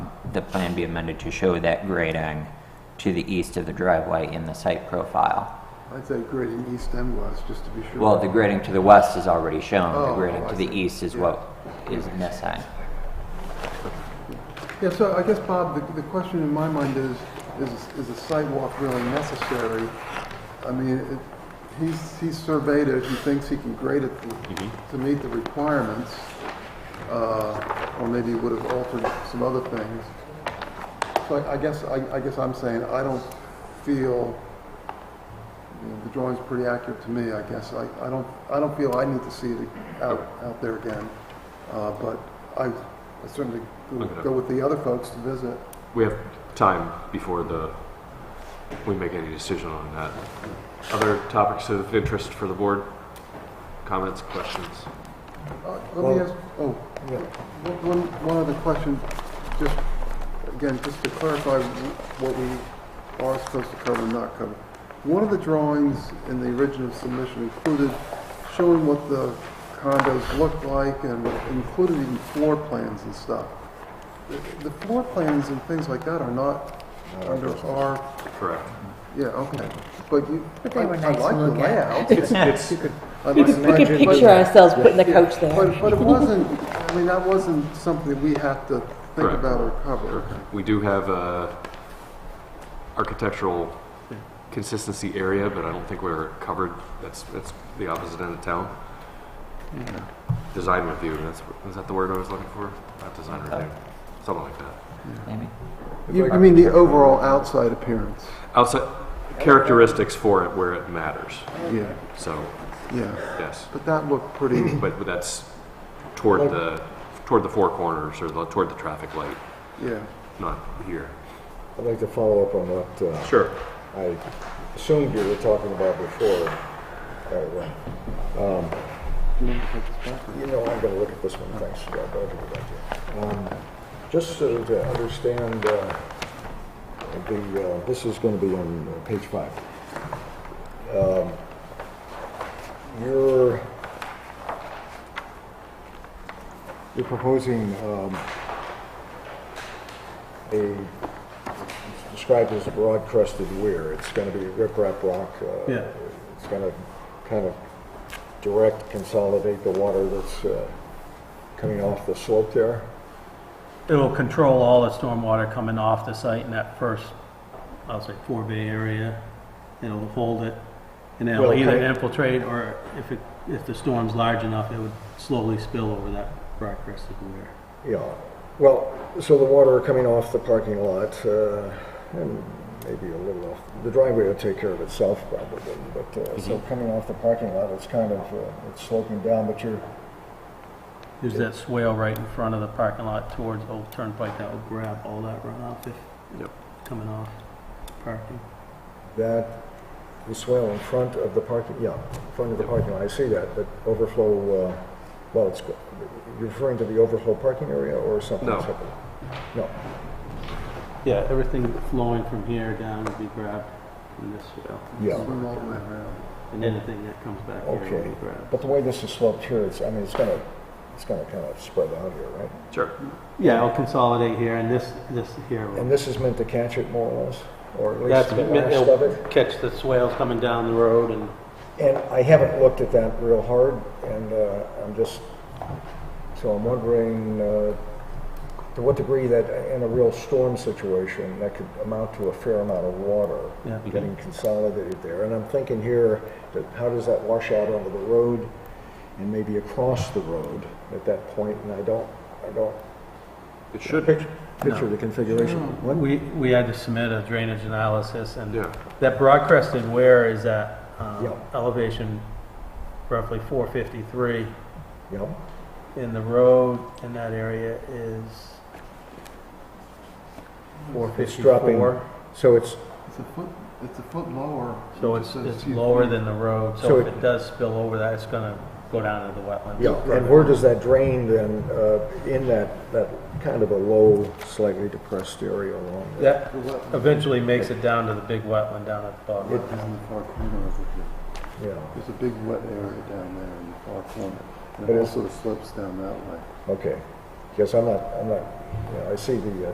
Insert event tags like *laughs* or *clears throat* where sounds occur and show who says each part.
Speaker 1: the plan be amended to show that grading to the east of the driveway in the site profile.
Speaker 2: I'd say grading east and west, just to be sure.
Speaker 1: Well, the grading to the west is already shown, the
Speaker 2: Oh,
Speaker 1: grading to
Speaker 2: I
Speaker 1: the
Speaker 2: see.
Speaker 1: east is
Speaker 2: Yeah.
Speaker 1: what is missing.
Speaker 2: Yeah, so I guess, Bob, the, the question in my mind is, is, is a sidewalk really necessary? I mean, it, he's, he's surveyed it, he thinks he can grade it to, to meet the requirements, uh, or maybe would have altered some other things. So I, I guess, I, I guess I'm saying, I don't feel, you know, the drawing's pretty accurate to me, I guess. I, I don't, I don't feel I need to see it out, out there again. Uh, but I I certainly
Speaker 3: Look it
Speaker 2: would
Speaker 3: up.
Speaker 2: go with the other folks to visit.
Speaker 3: We have time before the, we make any decision on that. Other topics of interest for the board? Comments, questions?
Speaker 2: Uh, Let me ask, oh, one- one, one other question, just, again, just to clarify what we are supposed to cover and not cover. One of the drawings in the original submission included showing what the condos looked like and included even floor plans and stuff. The- The floor plans and things like that are not under our,
Speaker 3: Correct.
Speaker 2: yeah, okay, but you,
Speaker 4: But
Speaker 2: I
Speaker 4: they were
Speaker 2: I
Speaker 4: nice to
Speaker 2: like the
Speaker 4: look at. *laughs*
Speaker 2: layout.
Speaker 3: It's, it's,
Speaker 1: *laughs*
Speaker 2: I like the
Speaker 5: We could
Speaker 2: layout.
Speaker 5: picture ourselves putting the coach there.
Speaker 2: But, but it wasn't, I mean, that wasn't something we have to think
Speaker 3: Correct.
Speaker 2: about or cover.
Speaker 3: we do have a architectural consistency area, but I don't think we're covered. That's, that's the opposite end of town. Design review, that's, is that the word I was looking for? Not design review, something like that.
Speaker 1: Amy?
Speaker 2: You, you mean the overall outside appearance?
Speaker 3: Outside, characteristics for it where it matters,
Speaker 2: Yeah,
Speaker 3: so,
Speaker 2: yeah.
Speaker 3: yes.
Speaker 2: But that looked pretty,
Speaker 3: But that's toward the, toward the four corners or the, toward the traffic light,
Speaker 2: *clears throat* yeah.
Speaker 3: not here.
Speaker 6: I'd like to follow up on what uh,
Speaker 3: Sure.
Speaker 6: I assumed you were talking about before. uh, All right, well, You know, I'm going to look at this one, thanks, Scott, I'll give it back to you. Um, Just so to understand, uh, the, uh, this is going to be on uh, page five. Um, You're, you're proposing um, a, it's described as broad crusted weir. It's going to be riprap rock. uh,
Speaker 2: Yeah.
Speaker 6: It's going to kind of direct, consolidate the water that's uh, coming off the slope there.
Speaker 7: It'll control all the stormwater coming off the site in that first, I'll say, four bay area. It'll hold it, and it'll
Speaker 6: Well,
Speaker 7: either
Speaker 6: okay.
Speaker 7: infiltrate, or if it, if the storm's large enough, it would slowly spill over that broad crested weir.
Speaker 6: Yeah, well, so the water coming off the parking lot, uh, and maybe a little off, the driveway will take care of itself probably, but, uh, so coming off the parking lot, it's kind of, uh, it's sloping down, but you're,
Speaker 7: There's that swale right in front of the parking lot towards Old Turnpike that will grab all that runoff if
Speaker 3: Yep.
Speaker 7: coming off parking.
Speaker 6: that, the swale in front of the parking, yeah, in front of the parking lot, I see that, but overflow, uh, well, it's, go- you're referring to the overflow parking area or something
Speaker 3: No.
Speaker 6: separate? No,
Speaker 7: Yeah, everything flowing from here down will be grabbed from this swale,
Speaker 6: yeah.
Speaker 2: Swim all the way around.
Speaker 7: and anything that comes back here will
Speaker 6: Okay,
Speaker 7: be grabbed.
Speaker 6: but the way this is sloped here, it's, I mean, it's gonna, it's gonna kind of spread out here, right?
Speaker 3: Sure.
Speaker 7: Yeah, it'll consolidate here, and this, this here will.
Speaker 6: And this is meant to catch it more or less, or at least
Speaker 7: That's,
Speaker 6: the last of
Speaker 7: it'll
Speaker 6: it?
Speaker 7: catch the swales coming down the road and,
Speaker 6: And I haven't looked at that real hard, and uh, I'm just, so I'm wondering uh, to what degree that, in a real storm situation, that could amount to a fair amount of water
Speaker 7: Yeah.
Speaker 6: getting consolidated there. And I'm thinking here, that how does that wash out onto the road and maybe across the road at that point? And I don't, I don't
Speaker 3: It should.
Speaker 6: pic- picture the configuration. What?
Speaker 7: we, we had to submit a drainage analysis and
Speaker 3: Yeah.
Speaker 7: that broad crested wear is at um,
Speaker 6: Yeah.
Speaker 7: elevation roughly 453
Speaker 6: Yeah,
Speaker 7: and the road in that area is
Speaker 6: It's dropping.
Speaker 7: 454.
Speaker 6: so it's,
Speaker 2: It's a foot, it's a foot lower.
Speaker 7: So
Speaker 2: It
Speaker 7: it's,
Speaker 2: says
Speaker 7: it's
Speaker 2: two
Speaker 7: lower
Speaker 2: feet.
Speaker 7: than the road,
Speaker 6: So
Speaker 7: so if
Speaker 6: it-
Speaker 7: it does spill over that, it's gonna go down into the wetlands.
Speaker 6: Yeah, and where does that drain then, uh, in that, that kind of a low, slightly depressed area along there?
Speaker 7: That eventually makes it down to the big wetland down at the bottom.
Speaker 2: Down in the far corner of it.
Speaker 6: Yeah,
Speaker 2: There's a big wet area down there in the far corner. And
Speaker 6: But
Speaker 2: it
Speaker 6: it's-
Speaker 2: also slopes down that way.
Speaker 6: okay. Because I'm not, I'm not, you know, I see the uh,